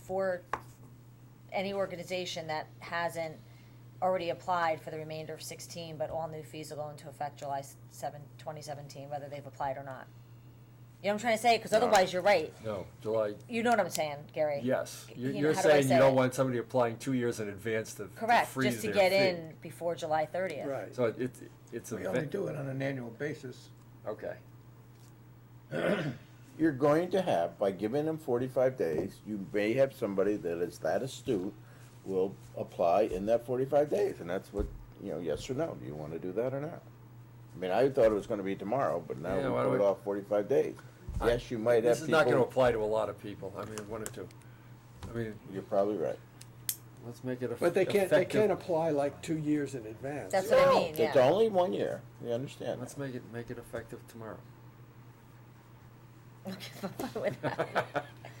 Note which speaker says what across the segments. Speaker 1: for any organization that hasn't already applied for the remainder of sixteen, but all new fees will go into effect July s- seven, twenty seventeen, whether they've applied or not. You know what I'm trying to say? Cause
Speaker 2: No.
Speaker 1: otherwise, you're right.
Speaker 2: No, July,
Speaker 1: You know what I'm saying, Gary?
Speaker 2: yes.
Speaker 1: You
Speaker 2: You're,
Speaker 1: know,
Speaker 2: you're
Speaker 1: how do I
Speaker 2: saying
Speaker 1: say
Speaker 2: you don't
Speaker 1: it?
Speaker 2: want somebody applying two years in advance to to
Speaker 1: Correct,
Speaker 2: freeze
Speaker 1: just to
Speaker 2: their
Speaker 1: get
Speaker 2: fee.
Speaker 1: in before July thirtieth.
Speaker 3: Right.
Speaker 2: So it's, it's a.
Speaker 3: We only
Speaker 2: ve-
Speaker 3: do it on an annual basis.
Speaker 2: Okay.
Speaker 4: You're going to have, by giving them forty-five days, you may have somebody that is that astute will apply in that forty-five days, and that's what, you know, yes or no, do you wanna do that or not? I mean, I thought it was gonna be tomorrow, but now we
Speaker 2: Yeah, why don't
Speaker 4: put it
Speaker 2: we-
Speaker 4: off forty-five days. Yes, you might have
Speaker 2: This is not gonna
Speaker 4: people,
Speaker 2: apply to a lot of people, I mean, one or two. I mean,
Speaker 4: you're probably right.
Speaker 2: let's make it a.
Speaker 3: But they can't, they can't
Speaker 2: effective-
Speaker 3: apply like two years in advance.
Speaker 1: That's what I
Speaker 4: No,
Speaker 1: mean,
Speaker 4: It's
Speaker 1: yeah.
Speaker 4: only one year, we understand that.
Speaker 2: Let's make it, make it effective tomorrow.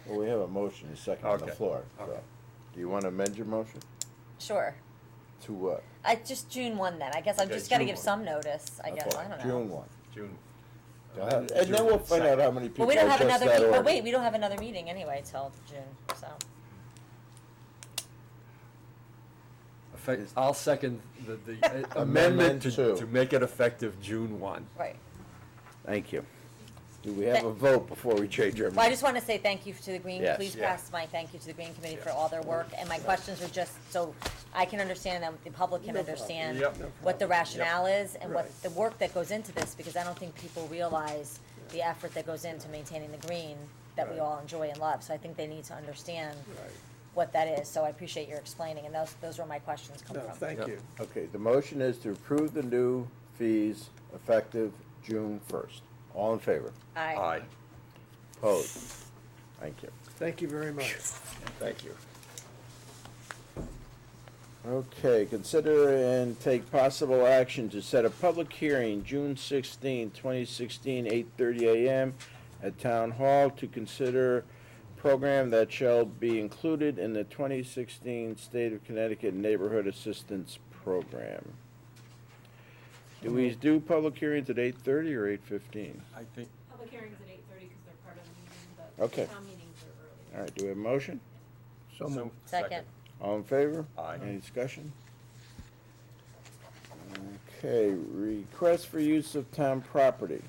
Speaker 4: Well, we have a motion, a second on the
Speaker 2: Okay,
Speaker 4: floor, so,
Speaker 2: okay.
Speaker 4: do you wanna amend your motion
Speaker 1: Sure.
Speaker 4: to what?
Speaker 1: I, just June one then. I guess I've
Speaker 2: Okay,
Speaker 1: just gotta
Speaker 2: June
Speaker 1: give
Speaker 2: one.
Speaker 1: some notice, I guess,
Speaker 4: Okay,
Speaker 1: I don't know.
Speaker 4: June one,
Speaker 2: June.
Speaker 4: Go ahead. and then we'll find out how many people
Speaker 1: Well, we don't have
Speaker 4: adjust
Speaker 1: another,
Speaker 4: that
Speaker 1: meet- but
Speaker 4: order.
Speaker 1: wait, we don't have another meeting anyway till June, so.
Speaker 2: Effect, I'll second the, the amendment
Speaker 4: Amendment
Speaker 2: to,
Speaker 4: two.
Speaker 2: to make it effective June one.
Speaker 1: Right.
Speaker 4: Thank you. Do we have a vote before we change our?
Speaker 1: Well, I just want to say thank you to the Green,
Speaker 4: Yes.
Speaker 1: please
Speaker 2: Yeah.
Speaker 1: pass my thank you to the Green Committee for all their work. And my questions were just so I can understand and the public can
Speaker 3: No problem.
Speaker 1: understand
Speaker 2: Yep. No
Speaker 1: what the rationale is and what
Speaker 3: Right.
Speaker 1: the work that goes into this, because I don't think people realize the effort that goes into maintaining the green that we
Speaker 3: Right.
Speaker 1: all enjoy and love. So I think they need to understand
Speaker 3: Right.
Speaker 1: what that is. So I appreciate your explaining, and those, those were my questions come
Speaker 3: No,
Speaker 1: from.
Speaker 3: thank
Speaker 2: Yep.
Speaker 3: you.
Speaker 4: Okay, the motion is to approve the new fees effective June first. All in favor?
Speaker 1: Aye.
Speaker 4: Opposed? Thank you.
Speaker 3: Thank you very much.
Speaker 4: Thank you. Okay, consider and take possible action to set a public hearing, June 16, 2016, 8:30 a.m. at Town Hall to consider program that shall be included in the 2016 State of Connecticut Neighborhood Assistance Program. Do we do public hearings at 8:30 or 8:15?
Speaker 2: I think,
Speaker 5: Public hearings at eight thirty because they're part of the meeting, but
Speaker 4: Okay.
Speaker 5: the town meetings are earlier.
Speaker 4: All right, do we have a motion?
Speaker 3: So moved.
Speaker 1: Second.
Speaker 4: All in favor?
Speaker 2: Aye.
Speaker 4: Any discussion? Okay, request for use of town property.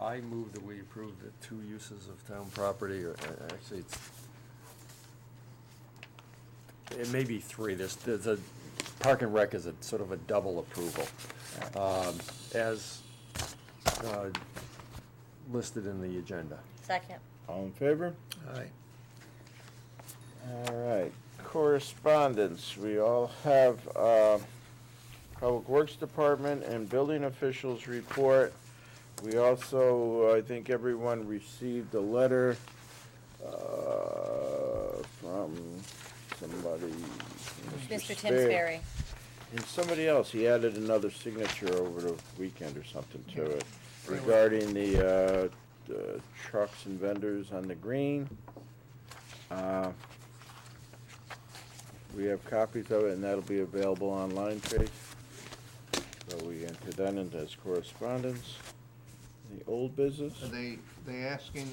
Speaker 2: I move that we approve the two uses of town property, or uh, actually, it's, it may be three, there's, there's a, Park and Rec is a sort of a double approval. Um, as, uh, listed in the agenda.
Speaker 1: Second.
Speaker 4: All in favor?
Speaker 3: All right.
Speaker 4: All right, correspondence, we all have, uh, Public Works Department and building officials report. We also, I think everyone received a letter, uh, from somebody.
Speaker 1: Mr. Tim
Speaker 4: Sperry.
Speaker 1: Sperry.
Speaker 4: And somebody else, he added another signature over the weekend or something to it regarding the, uh, the trucks and vendors on the green. Uh, We have copies of it and that'll be available online, Trace. So we enter that into as correspondence. The old business?
Speaker 6: Are they, they asking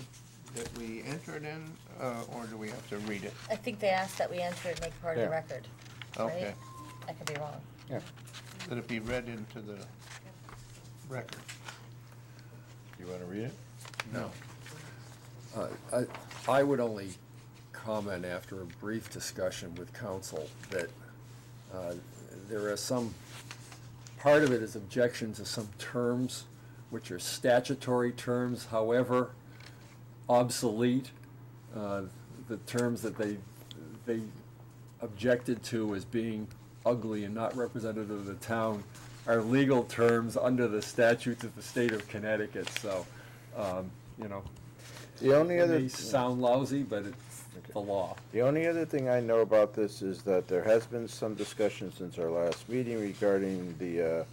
Speaker 6: that we enter it in, uh, or do we have to read it?
Speaker 1: I think they asked that we enter it and make part of the
Speaker 4: Yeah.
Speaker 1: record, right?
Speaker 6: Okay,
Speaker 1: I could be wrong.
Speaker 6: that it be read into the record?
Speaker 4: You wanna read it?
Speaker 6: No.
Speaker 2: Uh, I, I would only comment after a brief discussion with council that uh, there are some, part of it is objection to some terms which are statutory terms, however obsolete. Uh, The terms that they, they objected to as being ugly and not representative of the town are legal terms under the statutes of the state of Connecticut, so, um, you know,
Speaker 4: The only
Speaker 2: it
Speaker 4: other.
Speaker 2: may sound lousy, but it's the law.
Speaker 4: The only other thing I know about this is that there has been some discussion since our last meeting regarding the, uh,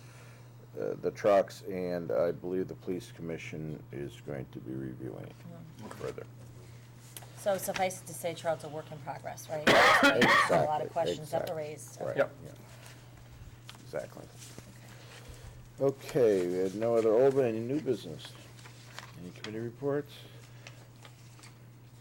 Speaker 4: uh, the trucks, and I believe the police commission is going to be reviewing it further.
Speaker 1: So suffice it to say, Charles, a work in progress, right?
Speaker 4: Exactly.
Speaker 1: A lot of questions that were
Speaker 4: exactly,
Speaker 1: raised.
Speaker 4: right,
Speaker 2: Yep.
Speaker 4: yeah. Exactly. Okay, we had no other old, any new business? Any committee reports?